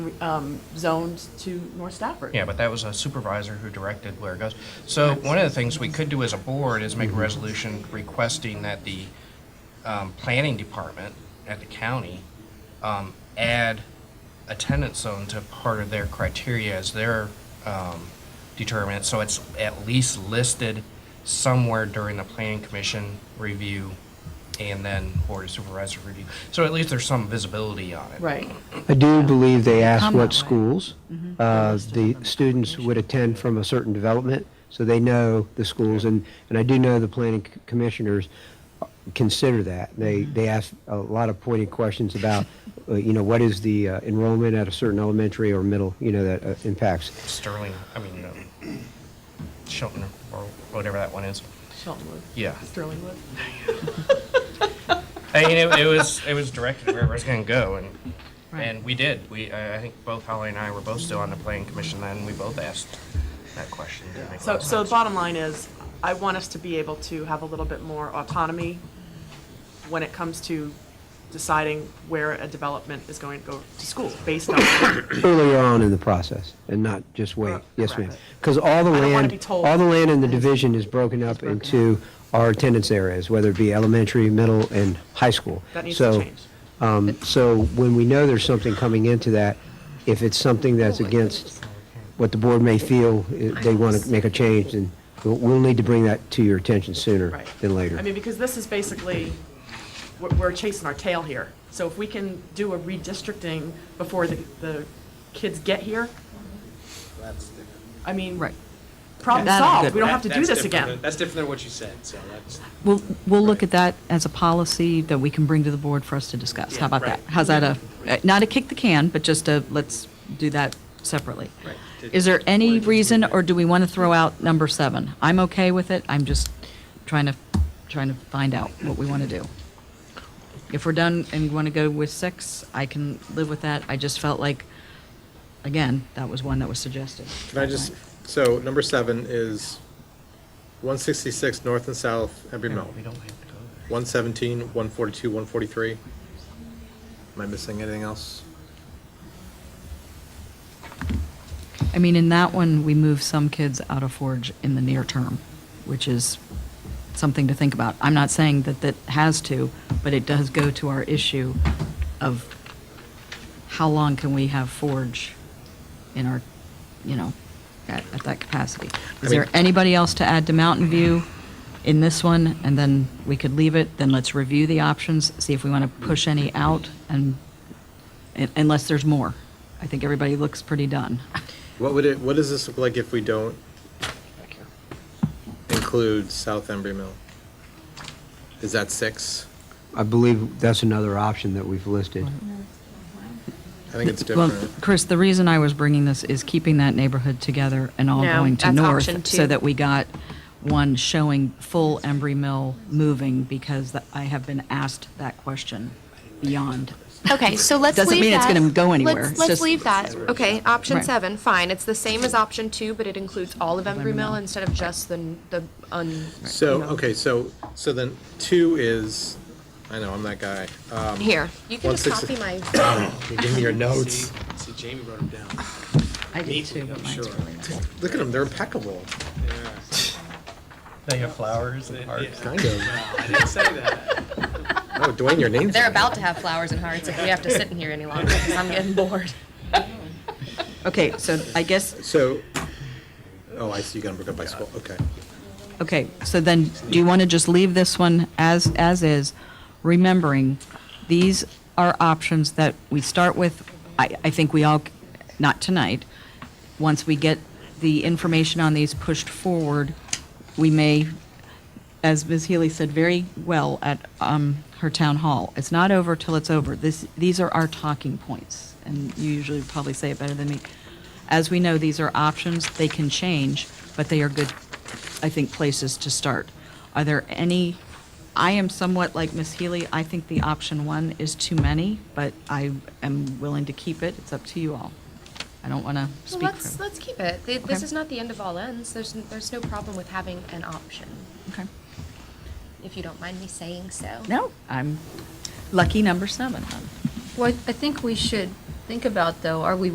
um, zoned to North Stafford. Yeah, but that was a supervisor who directed where it goes. So one of the things we could do as a board is make a resolution requesting that the um, planning department at the county um, add a tenant zone to part of their criteria as their um, determinant, so it's at least listed somewhere during the planning commission review and then board of supervisor review. So at least there's some visibility on it. Right, I do believe they asked Come what that way. schools Mm-hmm. uh, the students would attend from a certain development, so they know the schools, and, and I do know the planning c- commissioners consider that. They, Mm-hmm. they ask a lot of pointed questions about, uh, you know, what is the uh, enrollment at a certain elementary or middle, you know, that uh, impacts. Sterling, I mean, um, Shelton or whatever that one is. Sheltonwood. Yeah. Sterlingwood. I mean, it, it was it was directed to where it was going to go, and Right. and we did. We I I think both Holly and I were both still on the planning commission then. and We both asked that question. Didn't make a lot So, of so the sense. bottom line is, I want us to be able to have a little bit more autonomy when it comes to deciding where a development is going to go to school, based on, I earlier on in the process and not just wait. Correct. Yes, ma'am. Because all the I don't wanna land, be told. all the land in the division is broken up into our attendance areas, whether it be elementary, middle, and high school. That needs to So, change. um, So when we know there's something coming into that, if it's something that's Oh, against what the board may feel, eh, they want to make a change, then we'll- we'll need to bring that to your attention sooner right? than later. I mean, because this is basically, we're, we're chasing our tail here. So if we can do a redistricting before the, the kids get here, I mean, Right. problem That'll be solved, good. we don't That- have to do that's this different again. than- That's different than what you said, so that's, We'll, we'll look at that as a policy that we can bring to the board for us to discuss. How about that? right. How's that a, not a kick the can, but just a, let's do that separately. Right. Is there any Right. reason, or do we want to throw out number seven? I'm okay with it, I'm just trying to, trying to find out what we want to do. If we're done and want to go with six, I can live with that. I just felt like, again, that was one that was suggested. Can I just, so number seven is one sixty-six north and south Embry Yeah, Mill, we don't have to go there. one seventeen, one forty-two, one forty-three. Am I missing anything else? I mean, in that one, we move some kids out of Forge in the near term, which is something to think about. I'm not saying that that has to, but it does go to our issue of how long can we have Forge in our, you know, at, at that capacity? I Is there mean- anybody else to add to Mountain View in this one? And then we could leave it, then let's review the options, see if we want to push any out and, un- unless there's more. I think everybody looks pretty done. What would it, what does this look like if we don't include south Embry Mill? Is that six? I believe that's another option that we've listed. I think it's Well, different. Chris, the reason I was bringing this is keeping that neighborhood together and all No, going to that's north. option So two. that we got one showing full Embry Mill moving because th- I have been asked that question beyond. Okay, so let's leave that. Doesn't mean it's gonna go anywhere. Let's- It's Let's just- leave that. Okay, option Right. seven, fine. It's the same as option two, but it includes all of Embry Mill instead of just the, the, un. So, you know. okay, so, so then two is, I know, I'm that guy. Uh, Um, Here, you can One just sixty- copy my, you Give me your notes. see, Jamie wrote them down. I did too, but mine's really not. Look at them, they're impeccable. They have flowers and hearts. Kind of. I didn't say that. Oh, Dwayne, your name's. they're on it. about to have flowers and hearts if we have to sit in here any longer, because I'm getting bored. Okay, so I guess, So, oh, I see, you got them broken up by school, okay. okay, so then do you want to just leave this one as, as is? Remembering, these are options that we start with. I, I think we all, c- not tonight, once we get the information on these pushed forward, we may, as Ms. Healy said very well at um, her town hall, it's not over till it's over. This, these are our talking points, and you usually probably say it better than me. As we know, these are options, they can change, but they are good, I think, places to start. Are there any, I am somewhat like Ms. Healy, I think the option one is too many, but I am willing to keep it, it's up to you all. I don't want to Well, speak for. let's, let's keep it. Th- This Okay. is not the end of all ends. There's, n- there's no problem with having an option, Okay. if you don't mind me saying so. No, I'm lucky number seven. Well, I think we should think about, though, are we